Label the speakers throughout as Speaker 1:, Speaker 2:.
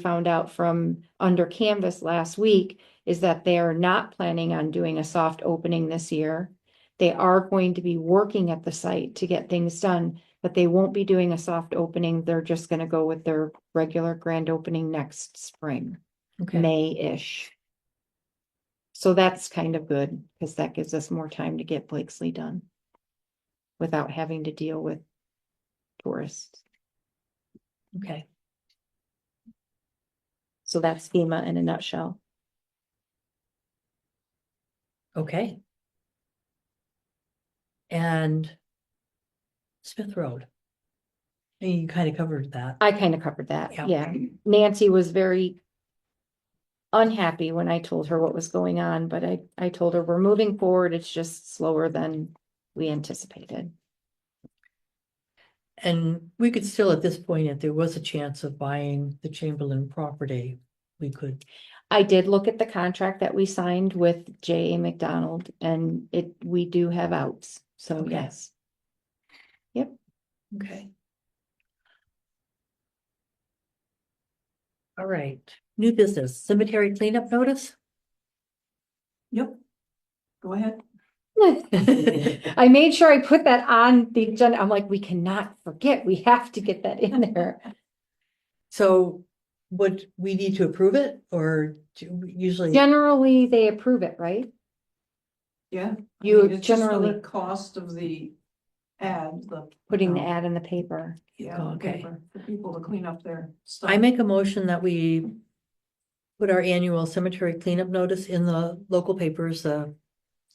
Speaker 1: found out from under canvas last week is that they are not planning on doing a soft opening this year. They are going to be working at the site to get things done, but they won't be doing a soft opening. They're just gonna go with their regular grand opening next spring,
Speaker 2: Okay,
Speaker 1: May-ish. So that's kind of good, because that gives us more time to get Blakesley done without having to deal with tourists.
Speaker 2: okay,
Speaker 1: So that's FEMA in a nutshell.
Speaker 2: okay. And Smith Road. You kind of covered that.
Speaker 1: I kind of covered that,
Speaker 2: Yeah.
Speaker 1: yeah. Nancy was very unhappy when I told her what was going on, but I, I told her we're moving forward, it's just slower than we anticipated.
Speaker 2: And we could still, at this point, if there was a chance of buying the Chamberlain property, we could,
Speaker 1: I did look at the contract that we signed with J A McDonald and it, we do have outs, so
Speaker 2: Okay.
Speaker 1: yes.
Speaker 2: okay. All right, new business, cemetery cleanup notice?
Speaker 3: Yep. Go ahead.
Speaker 1: I made sure I put that on the agenda, I'm like, we cannot forget, we have to get that in there.
Speaker 2: So would we need to approve it or do we usually?
Speaker 1: Generally, they approve it, right?
Speaker 3: Yeah. I
Speaker 1: You
Speaker 3: mean, it's just for the
Speaker 1: generally-
Speaker 3: Cost of the ad, the.
Speaker 1: Putting the
Speaker 3: um,
Speaker 1: ad in the paper.
Speaker 3: Yeah,
Speaker 2: Oh,
Speaker 3: the
Speaker 2: okay.
Speaker 3: paper, for people to clean up their stuff.
Speaker 2: I make a motion that we put our annual cemetery cleanup notice in the local papers, the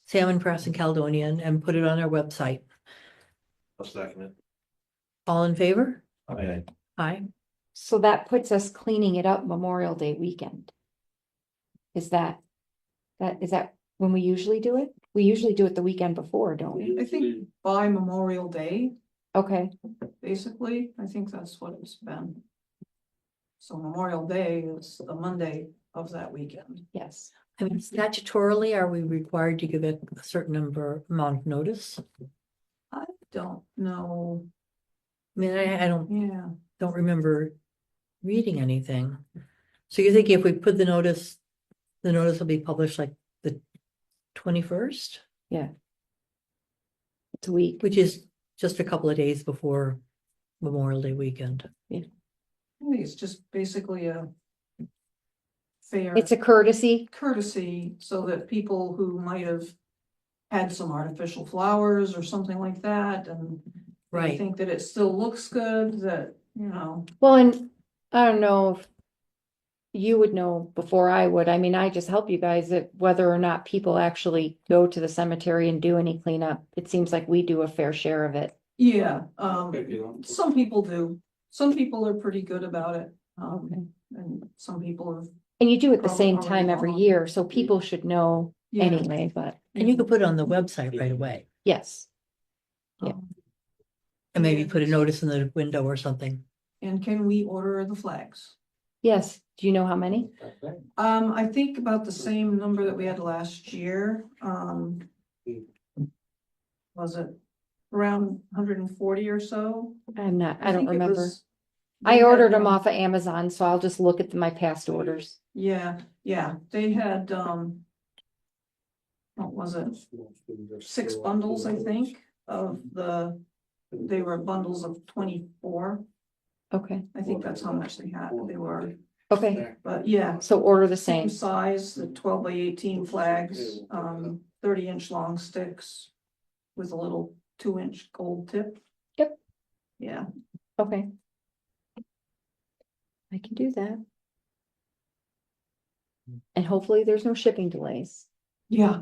Speaker 2: Salmon Press and Caledonian, and put it on our website.
Speaker 4: I'll second it.
Speaker 2: All in favor?
Speaker 4: Okay.
Speaker 2: Aye.
Speaker 1: So that puts us cleaning it up Memorial Day weekend. Is that, that, is that when we usually do it? We usually do it the weekend before, don't we?
Speaker 3: I think by Memorial Day,
Speaker 1: Okay,
Speaker 3: basically, I think that's what it's been. So Memorial Day is the Monday of that weekend.
Speaker 1: yes.
Speaker 2: I mean, statutorily, are we required to give it a certain number, amount of notice?
Speaker 3: I don't know,
Speaker 2: I mean, I, I don't,
Speaker 3: yeah,
Speaker 2: don't remember reading anything. So you're thinking if we put the notice, the notice will be published like the twenty-first,
Speaker 1: It's a week.
Speaker 2: which is just a couple of days before Memorial Day weekend.
Speaker 3: I think it's just basically a. Fair
Speaker 1: It's a courtesy.
Speaker 3: courtesy so that people who might have. Had some artificial flowers or something like that and they
Speaker 2: Right.
Speaker 3: Think that it still looks good, that, you know,
Speaker 1: Well, and I don't know if you would know before I would. I mean, I just help you guys that whether or not people actually go to the cemetery and do any cleanup. It seems like we do a fair share of it.
Speaker 3: yeah, um, some people do. Some people are pretty good about it, um, and some people have.
Speaker 1: And you do it the
Speaker 3: Probably
Speaker 1: same
Speaker 3: already
Speaker 1: time every
Speaker 3: gone.
Speaker 1: year, so people should know
Speaker 3: yeah,
Speaker 1: anyway, but
Speaker 2: And you could put it on the website right away
Speaker 1: yes. yeah.
Speaker 3: um,
Speaker 2: and maybe put a notice in the window or something.
Speaker 3: And can we order the flags?
Speaker 1: Yes, do you know how many?
Speaker 3: Um, I think about the same number that we had last year, um. Was it around hundred and forty or so?
Speaker 1: I'm not, I don't
Speaker 3: think it
Speaker 1: remember.
Speaker 3: was- um, they
Speaker 1: I
Speaker 3: had
Speaker 1: ordered them
Speaker 3: one-
Speaker 1: off of Amazon, so I'll just look at my past orders.
Speaker 3: Yeah, yeah, they had, um. What was it, six bundles, I think, of the, they were bundles of twenty-four.
Speaker 1: Okay,
Speaker 3: I think that's how much they had, they were,
Speaker 1: okay,
Speaker 3: but yeah,
Speaker 1: so order the
Speaker 3: same
Speaker 1: same.
Speaker 3: size, the twelve by eighteen flags, um, thirty-inch long sticks. With a little two-inch gold tip.
Speaker 1: Yep.
Speaker 3: Yeah,
Speaker 1: Okay. I can do that. And hopefully there's no shipping delays.
Speaker 3: yeah.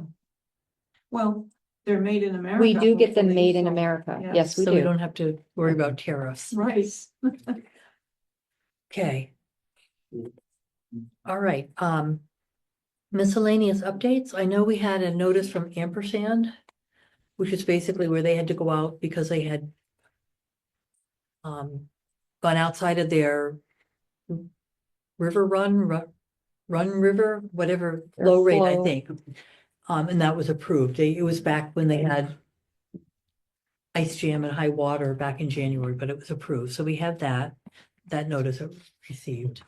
Speaker 3: Well, they're made in America.
Speaker 1: We do get them
Speaker 3: hopefully,
Speaker 1: made in
Speaker 3: so-
Speaker 1: America.
Speaker 3: yeah.
Speaker 1: Yes, we
Speaker 2: So we
Speaker 1: do. Mm-hmm.
Speaker 2: don't have to worry about tariffs.
Speaker 3: Right,
Speaker 2: Okay. All right, um. Miscellaneous updates. I know we had a notice from Ampersand. Which is basically where they had to go out because they had. Um, gone outside of their. River run, ru- run river, whatever,
Speaker 1: Their
Speaker 2: flow rate, I
Speaker 1: flow.
Speaker 2: think. Um, and that was approved. They- It was back when they had. Ice jam and high water back in January, but it was approved. So we have that, that notice received.